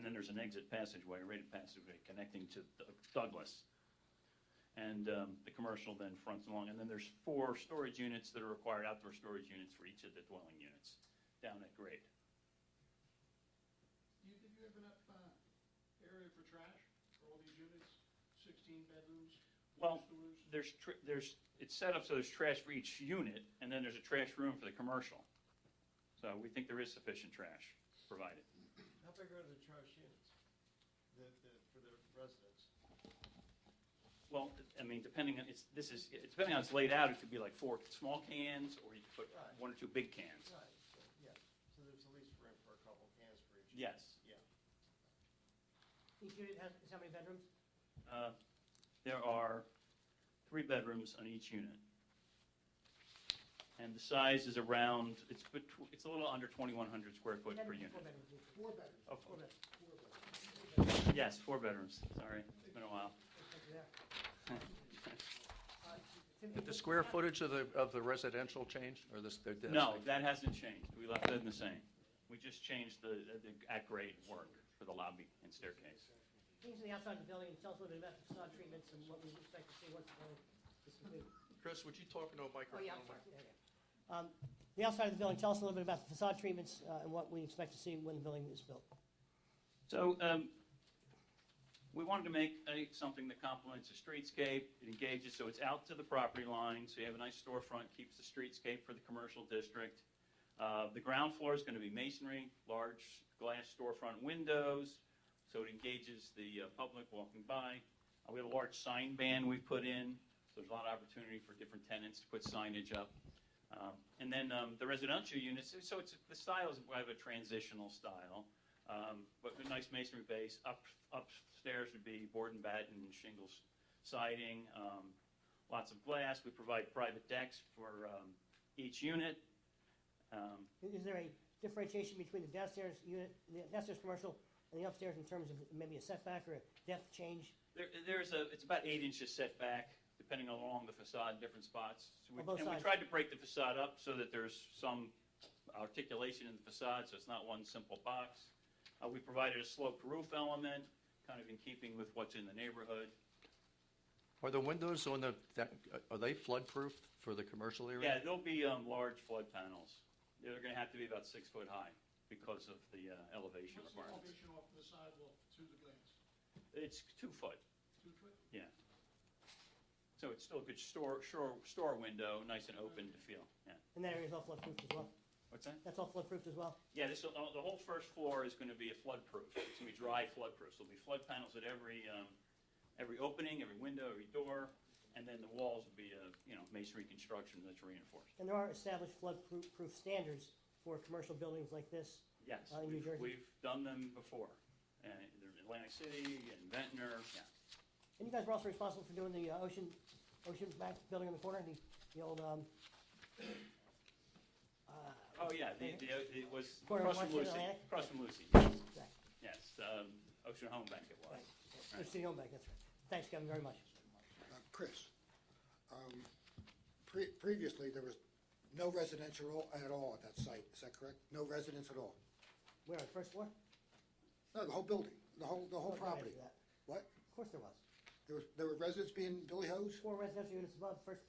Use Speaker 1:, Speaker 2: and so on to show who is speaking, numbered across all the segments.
Speaker 1: there's an exit passageway, a rated passageway connecting to Doug- Douglas. And um, the commercial then fronts along, and then there's four storage units that are required, outdoor storage units for each of the dwelling units down at grade.
Speaker 2: Do you think you have enough uh, area for trash for all these units? 16 bedrooms,
Speaker 1: Well,
Speaker 2: two stores?
Speaker 1: There's, tr- there's, it's set up so there's trash for each unit, and then there's a trash room for the commercial. So we think there is sufficient trash provided.
Speaker 3: How big are the trash units? The, the, for the residents?
Speaker 1: Well, I mean, depending on, it's, this is, it's depending on how it's laid out, it could be like four small cans, or you could put
Speaker 3: Right.
Speaker 1: one or two big cans.
Speaker 3: Right, so, yeah, so there's at least room for a couple cans for each. unit.
Speaker 1: Yes.
Speaker 3: Yeah.
Speaker 4: Each unit has, how many bedrooms?
Speaker 1: Uh, There are three bedrooms on each unit. And the size is around, it's, betw- it's a little under 2,100 square foot per
Speaker 4: Bedrooms,
Speaker 1: unit.
Speaker 4: Four bedrooms, each.
Speaker 2: Four bedrooms,
Speaker 1: Oh,
Speaker 4: four bedrooms.
Speaker 2: four bedrooms.
Speaker 1: Yes, four bedrooms, sorry, it's been a while.
Speaker 4: Yeah.
Speaker 5: Did the square footage of the, of the residential change, or this? the- the-
Speaker 1: No, that hasn't changed, we left it in the same. We just changed the, the at-grade work for the lobby and staircase.
Speaker 4: Uh, Things on the outside of the building, tell us a little bit about the facade treatments and what we expect to see once the building is completed.
Speaker 5: Chris, would you talk into a
Speaker 4: Oh,
Speaker 5: microphone?
Speaker 4: yeah, I'm sorry. Yeah, yeah. Um, The outside of the building, tell us a little bit about the facade treatments uh, and what we expect to see when the building is built.
Speaker 1: So, um, we wanted to make a, something that complements the streetscape, it engages, so it's out to the property line, so you have a nice storefront, keeps the streetscape for the commercial district. Uh, the ground floor is gonna be masonry, large glass storefront windows, so it engages the, uh, public walking by. Uh, we have a large sign ban we put in, so there's a lot of opportunity for different tenants to put signage up. Um, and then, um, the residential units, so it's, the style is, we have a transitional style. Um, But a nice masonry base. Up Upstairs would be board and batten and shingles siding, um, lots of glass. We provide private decks for um, each unit. Um,
Speaker 4: I- Is there a differentiation between the downstairs unit, the downstairs commercial and the upstairs in terms of maybe a setback or a depth change
Speaker 1: there- There's a, it's about eight inches setback, depending along the facade, different spots. So we-
Speaker 4: On both
Speaker 1: And we
Speaker 4: sides.
Speaker 1: tried to break the facade up so that there's some articulation in the facade, so it's not one simple box. Uh, We provided a sloped roof element, kind of in keeping with what's in the neighborhood.
Speaker 5: Are the windows on the, that- are they floodproof for the commercial
Speaker 1: Yeah,
Speaker 5: area?
Speaker 1: there'll be um, large flood panels. They're going to have to be about six foot high because of the uh, elevation
Speaker 2: What's the
Speaker 1: requirements.
Speaker 2: elevation off the sidewalk to the glass?
Speaker 1: It's two foot,
Speaker 2: Two foot?
Speaker 1: so it's still a good store, shore, store window, nice and open to feel, yeah.
Speaker 4: and that area is all floodproof as well?
Speaker 1: What's that?
Speaker 4: That's all floodproof as well?
Speaker 1: Yeah, this, will- uh, the whole first floor is going to be a floodproof. It's going to be dry floodproof. There'll be flood panels at every, um, every opening, every window, every door, and then the walls will be, uh, you know, masonry construction that's reinforced.
Speaker 4: And there are established floodproof proof standards for commercial buildings like this.
Speaker 1: Yes,
Speaker 4: Uh, in New
Speaker 1: we've,
Speaker 4: Jersey.
Speaker 1: we've done them before, uh, in Atlantic City and Ventnor, yeah.
Speaker 4: And you guys were also responsible for doing the uh, ocean, ocean back building in the corner, the, the old, um, uh,
Speaker 1: Oh, yeah, the, the, it was
Speaker 4: Corner of
Speaker 1: across from
Speaker 4: Washington
Speaker 1: Lucy,
Speaker 4: Atlantic?
Speaker 1: across from Lucy,
Speaker 4: Right.
Speaker 1: yes, um, Ocean Home Bank it was.
Speaker 4: Right. Ocean Home Bank, that's right. Thanks, Kevin, very much.
Speaker 6: Uh, Chris, um, pre- previously, there was no residential at all at that site, is that correct? No residence at all?
Speaker 4: We're on the first floor?
Speaker 6: No, the whole building, the whole, the whole
Speaker 4: Of course there
Speaker 6: property?
Speaker 4: is that.
Speaker 6: What?
Speaker 4: Of course there was.
Speaker 6: There was, there were residents being Billy Hoes?
Speaker 4: Four residential units above, first,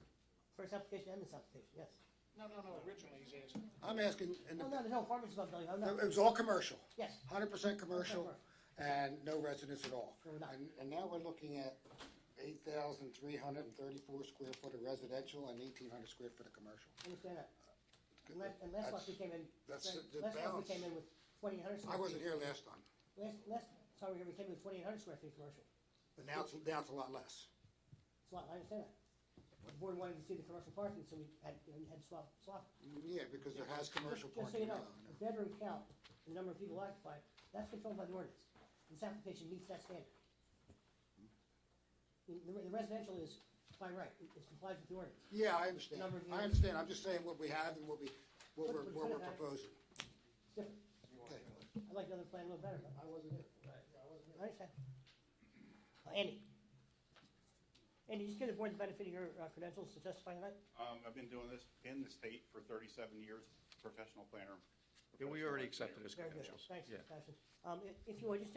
Speaker 4: first application and this application, yes.
Speaker 2: No, no, no, originally he's asking.
Speaker 6: I'm asking, and
Speaker 4: No, no, there's no apartments above building, oh, no,
Speaker 6: it was all commercial,
Speaker 4: yes.
Speaker 6: hundred percent commercial, and no residence at all.
Speaker 4: Fair enough.
Speaker 6: And, and now we're looking at eight thousand three hundred and thirty-four square foot of residential and eighteen hundred square foot of commercial.
Speaker 4: Understand that. And la- And last month we came in,
Speaker 6: That's
Speaker 4: last
Speaker 6: the
Speaker 4: month we
Speaker 6: balance.
Speaker 4: came in with twenty-eight hundred square
Speaker 6: I
Speaker 4: feet.
Speaker 6: wasn't here last time,
Speaker 4: Last, last time we were here, we came in with twenty-eight hundred square feet commercial.
Speaker 6: but now it's, now it's a lot less.
Speaker 4: It's a lot, I understand that. The board wanted to see the commercial parking, so we had, you know, you had to swap, swap.
Speaker 6: Yeah, because there has commercial
Speaker 4: Just- Just so you
Speaker 6: parking now.
Speaker 4: know, the bedroom count, the number of people occupied, that's controlled by the ordinance. This application meets that standard. The- The the residential is by right, it it complies with the ordinance.
Speaker 6: Yeah, I understand.
Speaker 4: Number of
Speaker 6: I
Speaker 4: units.
Speaker 6: understand. I'm just saying what we have and what we, what
Speaker 4: What
Speaker 6: we're,
Speaker 4: we
Speaker 6: what we're
Speaker 4: could have.
Speaker 6: proposing.
Speaker 4: It's different.
Speaker 6: Okay.
Speaker 4: I like the other plan a little better, but
Speaker 6: I wasn't here. I wasn't
Speaker 4: I understand. Uh, Andy? Andy, just give the board the benefit of your uh, credentials to testify tonight?
Speaker 7: Um, I've been doing this in the state for thirty-seven years, professional planner.
Speaker 5: Yeah, we
Speaker 7: professional
Speaker 5: already
Speaker 7: engineer.
Speaker 5: accepted his
Speaker 4: Very good,
Speaker 5: credentials.
Speaker 4: thanks,
Speaker 5: Yeah.
Speaker 4: Sebastian. Um, i- If you would, just